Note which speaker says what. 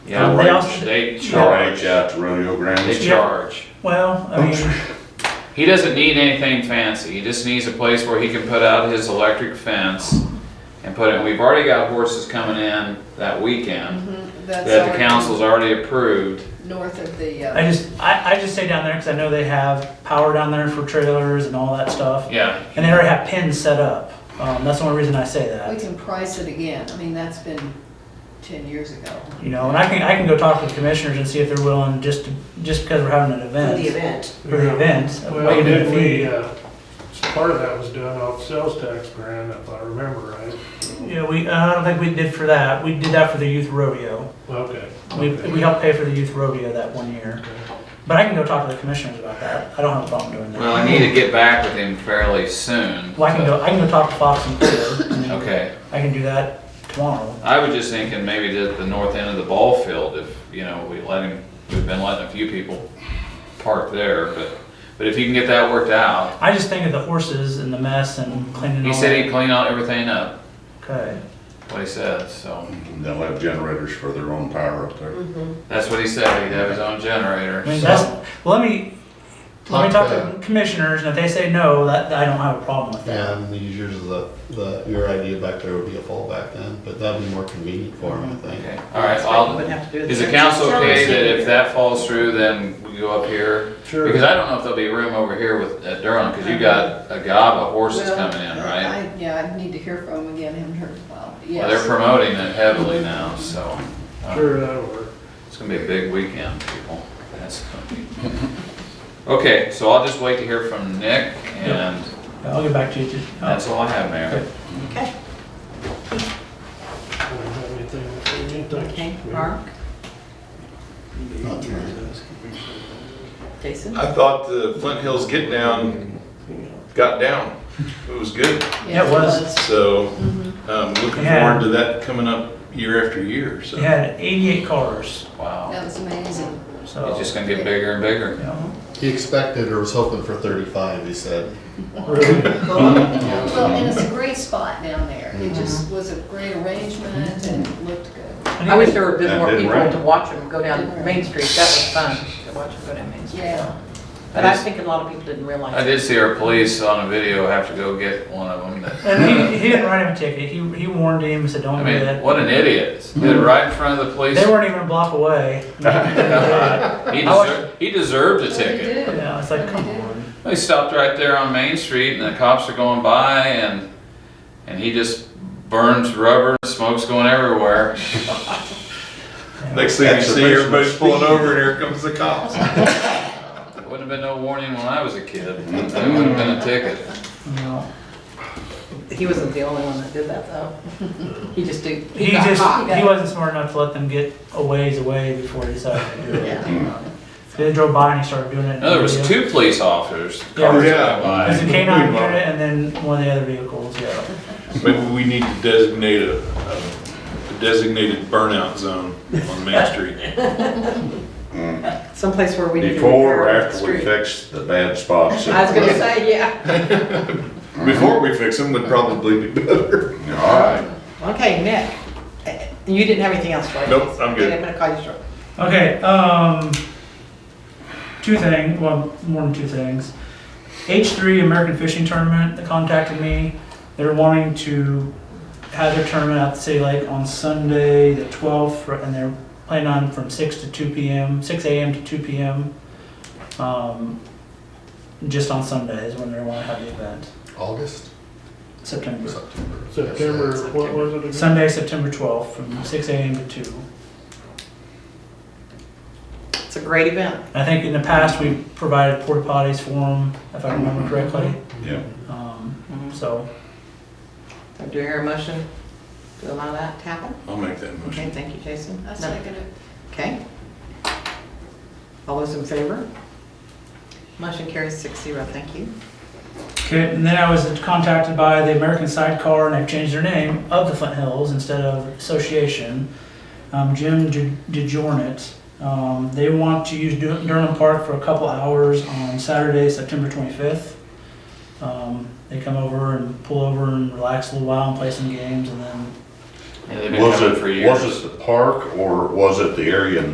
Speaker 1: Yeah,
Speaker 2: Um, They
Speaker 1: right.
Speaker 2: also-
Speaker 1: they
Speaker 3: Charge
Speaker 1: charge,
Speaker 3: out to rodeo
Speaker 1: they
Speaker 3: grounds.
Speaker 1: charge.
Speaker 2: Well,
Speaker 4: Oh,
Speaker 2: I mean,
Speaker 1: He doesn't need anything fancy, he just needs a place where he can put out his electric fence and put it, we've already got horses coming in that weekend Mm-hmm. that the council's already approved.
Speaker 5: North of the,
Speaker 2: I
Speaker 5: uh,
Speaker 2: just, I, I just stay down there because I know they have power down there for trailers and all that stuff.
Speaker 1: Yeah,
Speaker 2: And they already have pins set up. Um, that's the only reason I say
Speaker 5: we
Speaker 2: that.
Speaker 5: can price it again. I mean, that's been ten years ago.
Speaker 2: You know, and I can, I can go talk to the commissioners and see if they're willing just, to- just because we're having an
Speaker 6: for the
Speaker 2: event.
Speaker 6: event.
Speaker 2: For the event.
Speaker 4: Well,
Speaker 2: we can do a
Speaker 4: didn't
Speaker 2: fee.
Speaker 4: we, uh, part of that was done off sales tax grant, if I remember right.
Speaker 2: Yeah, we, uh, I don't think we did for that. We did that for the youth rodeo.
Speaker 4: Okay.
Speaker 2: We,
Speaker 4: okay.
Speaker 2: we helped pay for the youth rodeo that one year. But I can go talk to the commissioners about that. I don't have a problem doing that.
Speaker 1: well, I need to get back with him fairly soon.
Speaker 2: Well, I can go, I can go talk to Fox and Clear. and then
Speaker 1: Okay,
Speaker 2: I can do that tomorrow.
Speaker 1: I was just thinking maybe at the north end of the ball field, if, you know, we let him, we've been letting a few people park there, but, but if you can get that worked out.
Speaker 2: I just think of the horses and the mess and cleaning
Speaker 1: He
Speaker 2: all
Speaker 1: said
Speaker 2: that.
Speaker 1: he'd clean out everything up,
Speaker 2: Okay.
Speaker 1: what he said, so,
Speaker 3: And They'll have generators for their own power up there.
Speaker 1: that's what he said, he'd have his own generator.
Speaker 2: I mean,
Speaker 1: so-
Speaker 2: that's, well, let me, let me
Speaker 7: Talk
Speaker 2: talk to
Speaker 7: to-
Speaker 2: commissioners, and if they say no, that, I don't have a problem with that.
Speaker 7: And the users of the, the, your idea back there would be a fallback then, but that'd be more convenient for them, I think.
Speaker 1: Okay, all right, I'll, is the council okay that if that falls through, then we go up here?
Speaker 4: Sure.
Speaker 1: Because I don't know if there'll be room over here with, at Durham, because you got a gob of horses
Speaker 5: Well,
Speaker 1: coming in, right?
Speaker 5: I- Yeah, I need to hear from him again. Haven't heard in a while.
Speaker 1: Well, they're
Speaker 5: Yes.
Speaker 1: promoting it heavily
Speaker 2: Mm-hmm.
Speaker 1: now, so. uh,
Speaker 4: Sure, that'll work.
Speaker 1: It's gonna be a big weekend, people. That's gonna be. Okay, so I'll just wait to hear from Nick, and
Speaker 2: I'll get back to you too. Uh,
Speaker 1: that's all I have, Mayor.
Speaker 6: Okay,
Speaker 4: I don't have anything to say, thanks.
Speaker 6: okay, Mark,
Speaker 7: Not too many.
Speaker 6: Jason?
Speaker 1: Uh,
Speaker 8: I thought the Flint Hills Get Down got down. It was good.
Speaker 5: Yes,
Speaker 2: Yeah, it was.
Speaker 8: So um, looking
Speaker 2: Yeah.
Speaker 8: forward to that coming up year after year. So
Speaker 2: He had eighty-eight cars,
Speaker 1: Wow,
Speaker 5: That was amazing.
Speaker 2: so.
Speaker 1: it's just gonna get bigger and bigger.
Speaker 2: Oh. yeah.
Speaker 7: He expected or was hoping for thirty-five, he said.
Speaker 1: Mm-hmm.
Speaker 5: Well, and it's a great spot down there. It just
Speaker 2: Mm-hmm.
Speaker 5: was a great arrangement and looked good.
Speaker 2: And he
Speaker 9: I wish
Speaker 2: was-
Speaker 9: there were a bit
Speaker 3: That
Speaker 9: more
Speaker 3: did
Speaker 9: people
Speaker 3: rain.
Speaker 9: to watch them go down Main Street. That was fun, to watch them go down Main Street.
Speaker 5: Yeah.
Speaker 9: But I think a lot of people didn't realize.
Speaker 1: I
Speaker 9: it.
Speaker 1: did see our police on a video have to go get one of them. that-
Speaker 2: And he, he didn't write him a ticket. He, he warned him, said,
Speaker 1: I
Speaker 2: don't do
Speaker 1: mean,
Speaker 2: that.
Speaker 1: what an idiot. Did it right in front of the police.
Speaker 2: They weren't even a block away.
Speaker 1: He deserved, he deserved a
Speaker 5: Well, they
Speaker 1: ticket.
Speaker 5: do.
Speaker 2: Yeah, it's like,
Speaker 5: They
Speaker 2: come
Speaker 5: do.
Speaker 2: on.
Speaker 1: They stopped right there on Main Street and the cops are going by and, and he just burns rubber, smoke's going everywhere.
Speaker 8: next thing you
Speaker 3: That's
Speaker 8: see,
Speaker 3: the reason
Speaker 8: everybody's
Speaker 3: it's
Speaker 8: pulling
Speaker 3: speed.
Speaker 8: over, and here comes the cops.
Speaker 1: Wouldn't have been no warning when I was a kid. It would have been a ticket.
Speaker 2: You know,
Speaker 9: He wasn't the only one that did that, though. He just did,
Speaker 2: He
Speaker 9: he got
Speaker 2: just,
Speaker 9: caught.
Speaker 2: he wasn't smart enough to let them get a ways away before he decided to do it.
Speaker 9: Yeah.
Speaker 2: They drove by and he started doing it. in
Speaker 1: No, Oh, there was
Speaker 2: the video.
Speaker 1: two police officers.
Speaker 2: Yeah.
Speaker 1: Cars
Speaker 8: Yeah.
Speaker 1: went
Speaker 2: It was
Speaker 1: by.
Speaker 2: a K nine unit and then one of the other vehicles, yeah.
Speaker 8: Maybe we need to designate a, a designated burnout zone on Main Street.
Speaker 9: Someplace where we need to.
Speaker 3: Before or
Speaker 9: repair the
Speaker 3: after we
Speaker 9: street.
Speaker 3: fix the bad spots?
Speaker 9: I was gonna say, yeah.
Speaker 8: Before we fix them, would probably be better.
Speaker 3: All right.
Speaker 9: Okay, Nick, eh, you didn't have anything else for us?
Speaker 8: Nope, I'm good.
Speaker 9: Okay, I'm gonna call you short.
Speaker 2: Okay, um, two things, well, more than two things. H3 American Fishing Tournament that contacted me, they're wanting to have their tournament at the City Lake on Sunday, the 12th, and they're planning on from 6 to 2 p.m., 6 a.m. to 2 p.m. Um, just on Sundays when they want to have the event,
Speaker 7: August,
Speaker 2: September.
Speaker 7: September.
Speaker 4: September, what was it again?
Speaker 2: Sunday, September 12th, from 6 a.m. to 2.
Speaker 9: It's a great event.
Speaker 2: I think in the past, we've provided porta potties for them, if I remember correctly.
Speaker 3: Yeah.
Speaker 2: Um,
Speaker 1: Mm-hmm.
Speaker 9: Mhm.
Speaker 2: so,
Speaker 9: So do you hear a motion to allow that to happen?
Speaker 8: I'll make that motion.
Speaker 9: Okay, thank you, Jason.
Speaker 5: I second it.
Speaker 9: Okay. All those in favor? Motion carries six zero, thank you.
Speaker 2: okay, and then I was contacted by the American Sidecar, and they've changed their name of the Flint Hills instead of Association. Um, Jim De- DeJornet, um, they want to use Dur- Durham Park for a couple hours on Saturday, September 25th. Um, they come over and pull over and relax a little while and play some games, and then
Speaker 1: Yeah, they've been
Speaker 3: Was
Speaker 1: coming
Speaker 3: it,
Speaker 1: for years.
Speaker 3: was it the park or was it the area in